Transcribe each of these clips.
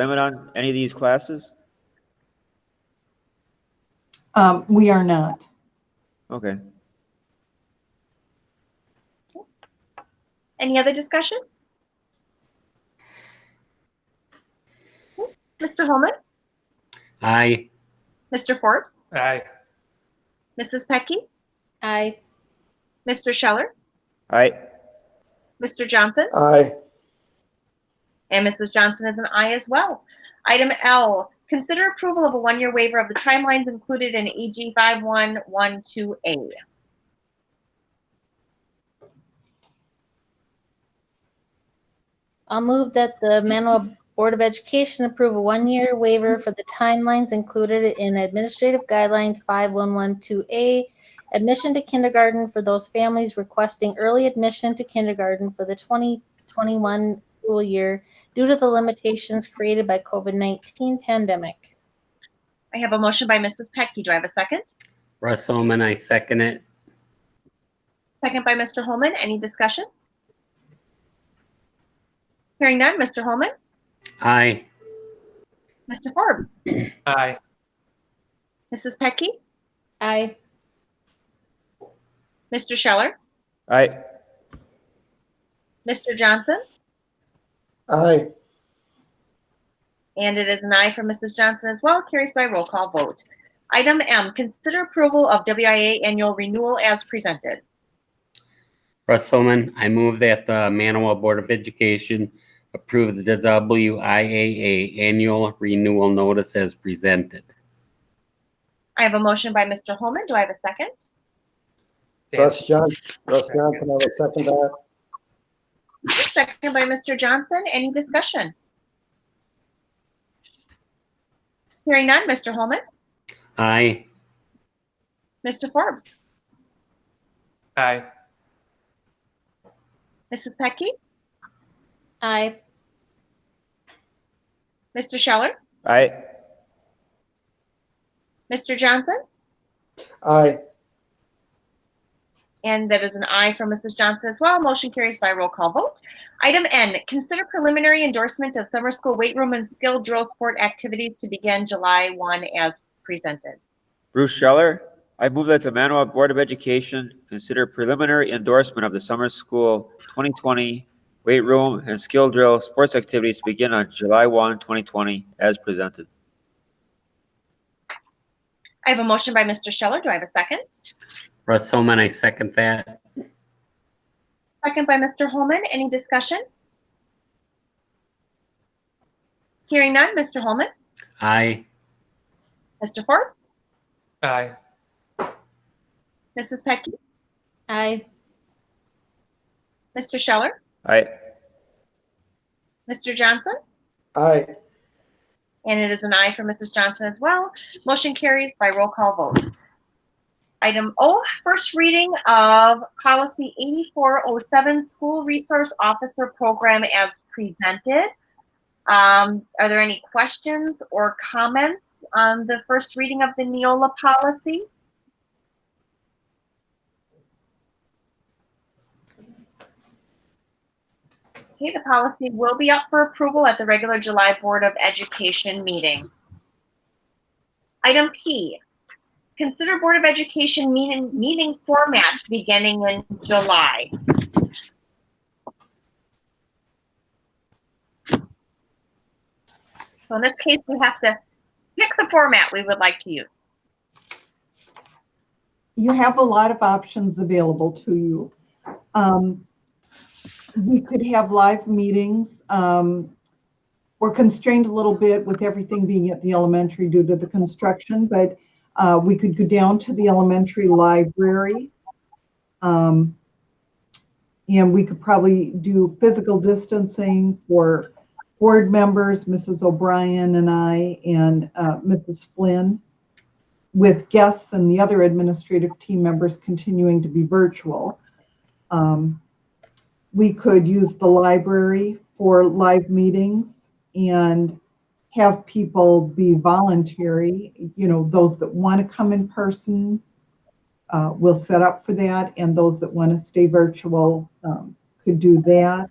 limit on any of these classes? Um, we are not. Okay. Any other discussion? Mr. Holman, Aye. Mr. Forbes, Aye. Mrs. Pecky, Aye. Mr. Scheller, All right. Mr. Johnson, aye, and Mrs. Johnson is an aye as well. Item L, consider approval of a one-year waiver of the timelines included in E AG 5112A. I'll move that the Manawha Board of Education approve a one-year waiver for the timelines included in Administrative Guidelines 5112A, admission to kindergarten for those families requesting early admission to kindergarten for the 2021 school year due to the limitations created by COVID-19 pandemic. I have a motion by Mrs. Pecky. Do I have a second? Russ Holman, I second it. Second by Mr. Holman. Any discussion? Hearing none. Mr. Holman, Aye. Mr. Forbes, Aye. Mrs. Pecky, Aye. Mr. Scheller, All right. Mr. Johnson, aye. And it is an aye for Mrs. Johnson as well, carries by roll call vote. Item M, consider approval of WIA annual renewal as presented. Russ Holman, I move that the Manawa Board of Education approve the WIAA annual renewal notice as presented. I have a motion by Mr. Holman. Do I have a second? Russ Johnson, Russ Johnson, I will second that. Second by Mr. Johnson. Any discussion? Hearing none. Mr. Holman, Aye. Mr. Forbes, Aye. Mrs. Pecky, Aye. Mr. Scheller, All right. Mr. Johnson, Aye, And that is an aye from Mrs. Johnson as well. Motion carries by roll call vote. Item N, consider preliminary endorsement of summer school weight room and skill drill sport activities to begin July 1 as presented. Bruce Scheller, I move that the Manawa Board of Education consider preliminary endorsement of the summer school 2020 weight room and skill drill sports activities to begin on July 1, 2020, as presented. I have a motion by Mr. Scheller. Do I have a second? Russ Holman, I second that. Second by Mr. Holman. Any discussion? Hearing none. Mr. Holman, Aye. Mr. Forbes, Aye. Mrs. Petke, Aye. Mr. Scheller, All right. Mr. Johnson, aye, And it is an aye for Mrs. Johnson as well. Motion carries by roll call vote. Item O, first reading of policy 8407, school resource officer program as presented. Um, Are there any questions or comments on the first reading of the Neola policy? Okay, the policy will be up for approval at the regular July Board of Education meeting. Item P, consider Board of Education meeting, meeting format beginning in July. So in this case, we have to pick the format we would like to use. You have a lot of options available to you. Um, we could have live meetings. Um, we're constrained a little bit with everything being at the elementary due to the construction, but uh, we could go down to the elementary library. Um, and we could probably do physical distancing for board members, Mrs. O'Brien and I, and uh, Mrs. Flynn with guests and the other administrative team members continuing to be virtual. Um, We could use the library for live meetings and have people be voluntary, you know, those that want to come in person, uh, will set up for that, and those that want to stay virtual um, could do that.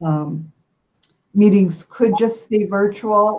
Um, meetings could just stay virtual